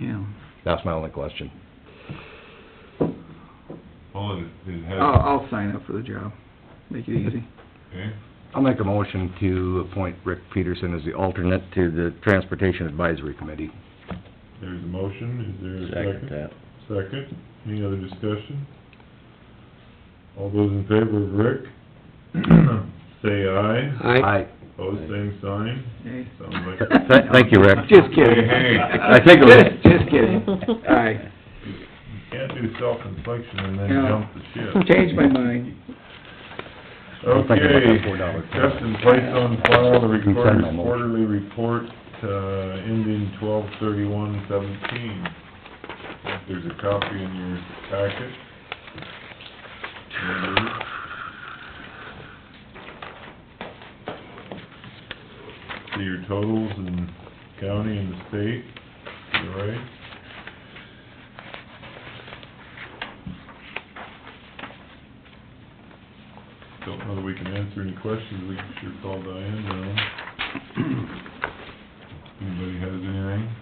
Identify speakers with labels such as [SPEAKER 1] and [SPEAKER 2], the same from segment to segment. [SPEAKER 1] Yeah.
[SPEAKER 2] That's my only question.
[SPEAKER 3] Well, it, it has,
[SPEAKER 1] I'll, I'll sign up for the job. Make it easy.
[SPEAKER 3] okay,
[SPEAKER 2] I'll make a motion to appoint Rick Peterson as the alternate to the Transportation Advisory Committee.
[SPEAKER 3] there's a motion, is there a second?
[SPEAKER 4] that.
[SPEAKER 3] Second, any other discussion? All those in favor of Rick, say aye.
[SPEAKER 2] Aye.
[SPEAKER 3] Pose same sign.
[SPEAKER 1] Hey.
[SPEAKER 3] Sounds like
[SPEAKER 2] Th- Thank you, Rick.
[SPEAKER 1] Just kidding.
[SPEAKER 3] Hey, hey.
[SPEAKER 2] I think it was-
[SPEAKER 1] Just- Just kidding. Aye.
[SPEAKER 3] you can't do self-inflection and then
[SPEAKER 1] Yeah.
[SPEAKER 3] jump the ship.
[SPEAKER 1] Changed my mind.
[SPEAKER 2] I'm thinking about
[SPEAKER 3] Okay,
[SPEAKER 2] that $4.
[SPEAKER 3] just in place on file the
[SPEAKER 2] Consent
[SPEAKER 3] recorder's
[SPEAKER 2] memo.
[SPEAKER 3] quarterly report, uh, ending twelve thirty-one seventeen. There's a copy in your packet. See your totals in county and the state, you right? Don't know that we can answer any questions, we can sure call Diane down. Anybody has anything?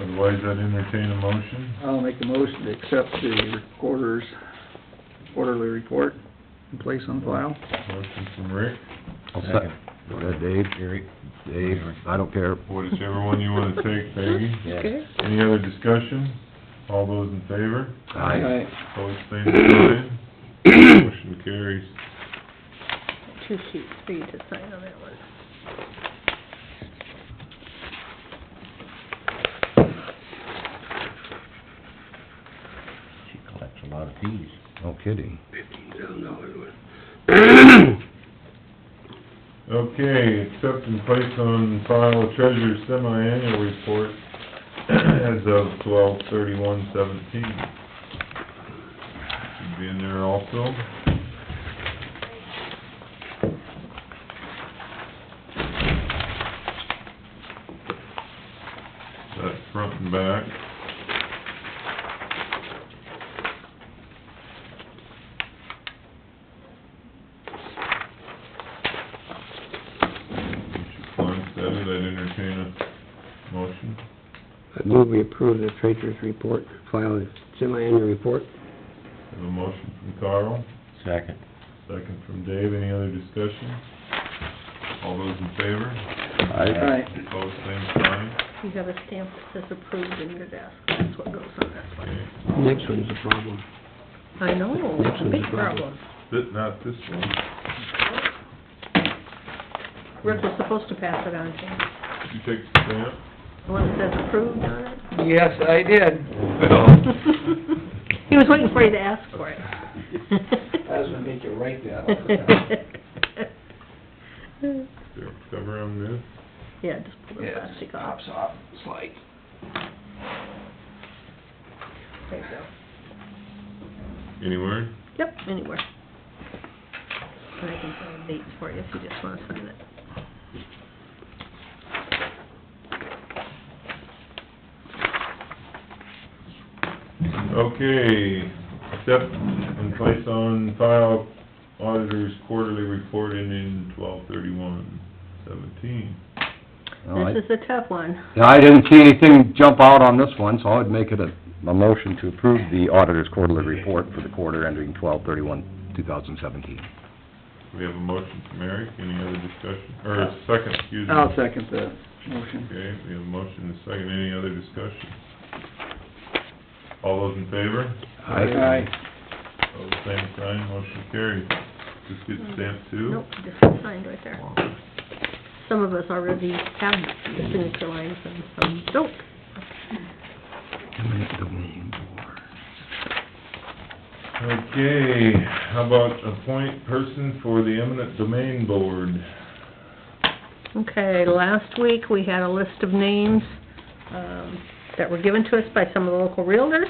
[SPEAKER 3] Otherwise, I'd entertain a motion.
[SPEAKER 1] I'll make a motion to accept the recorder's quarterly report and place on file.
[SPEAKER 3] Motion from Rick,
[SPEAKER 2] I'll second. Go ahead, Dave. Dave, I don't care.
[SPEAKER 3] whichever one you wanna take, Peggy.
[SPEAKER 4] Okay.
[SPEAKER 3] Any other discussion? All those in favor?
[SPEAKER 2] Aye.
[SPEAKER 3] Opposed, same sign. Motion carries.
[SPEAKER 5] Two sheets for you to sign on that one.
[SPEAKER 4] She collects a lot of fees.
[SPEAKER 2] No kidding.
[SPEAKER 3] Okay, accept and place on file treasurer's semi-annual report as of twelve thirty-one seventeen. Should be in there also. That's front and back. Clarence said it, I'd entertain a motion.
[SPEAKER 6] I move we approve the treasurer's report, file the semi-annual report.
[SPEAKER 3] Have a motion from Carl.
[SPEAKER 4] Second.
[SPEAKER 3] Second from Dave, any other discussion? All those in favor?
[SPEAKER 1] Aye.
[SPEAKER 3] Opposed, same sign.
[SPEAKER 5] You have a stamp that says approved in your desk, that's what goes on this one.
[SPEAKER 3] Okay.
[SPEAKER 6] Next one's a problem.
[SPEAKER 5] I know, it's a big problem.
[SPEAKER 3] Th- Not this one.
[SPEAKER 5] Rick was supposed to pass it on to you.
[SPEAKER 3] You take the stamp?
[SPEAKER 5] The one that says approved on it.
[SPEAKER 1] Yes, I did.
[SPEAKER 3] No.
[SPEAKER 5] He was waiting for you to ask for it.
[SPEAKER 6] Doesn't make you right
[SPEAKER 3] There, Cover on this.
[SPEAKER 5] Yeah, just pull the plastic off.
[SPEAKER 6] off, slide.
[SPEAKER 5] There you go.
[SPEAKER 3] Anywhere?
[SPEAKER 5] Yep, anywhere. And I can find dates for you if you just wanna sign it.
[SPEAKER 3] Okay, accept and place on file auditor's quarterly report ending twelve thirty-one seventeen.
[SPEAKER 2] All right.
[SPEAKER 5] This is a tough one.
[SPEAKER 2] Now, I didn't see anything jump out on this one, so I would make it a, a motion to approve the auditor's quarterly report for the quarter ending twelve thirty-one, two thousand seventeen.
[SPEAKER 3] We have a motion from Eric, any other discussion, or a second, excuse me.
[SPEAKER 1] I'll second the motion.
[SPEAKER 3] Okay, we have a motion and a second, any other discussion? All those in favor?
[SPEAKER 1] Aye.
[SPEAKER 3] All the same sign, motion carries. Just get stamped too?
[SPEAKER 5] Nope, just signed right there. Some of us already have the signature lines and some don't.
[SPEAKER 3] Okay, how about appoint person for the eminent domain board?
[SPEAKER 5] Okay, last week, we had a list of names, um, that were given to us by some of the local realtors.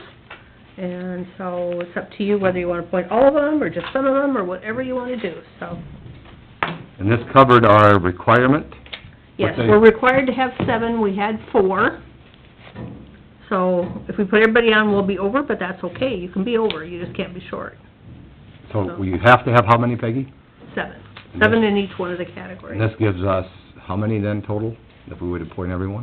[SPEAKER 5] And so it's up to you whether you wanna appoint all of them, or just some of them, or whatever you wanna do, so.
[SPEAKER 2] And this covered our requirement?
[SPEAKER 5] Yes,
[SPEAKER 2] What they-
[SPEAKER 5] we're required to have seven, we had four. So if we put everybody on, we'll be over, but that's okay, you can be over, you just can't be short.
[SPEAKER 2] So we have to have how many, Peggy?
[SPEAKER 5] Seven, seven in each one of the categories.
[SPEAKER 2] And this gives us how many then total, if we would appoint everyone?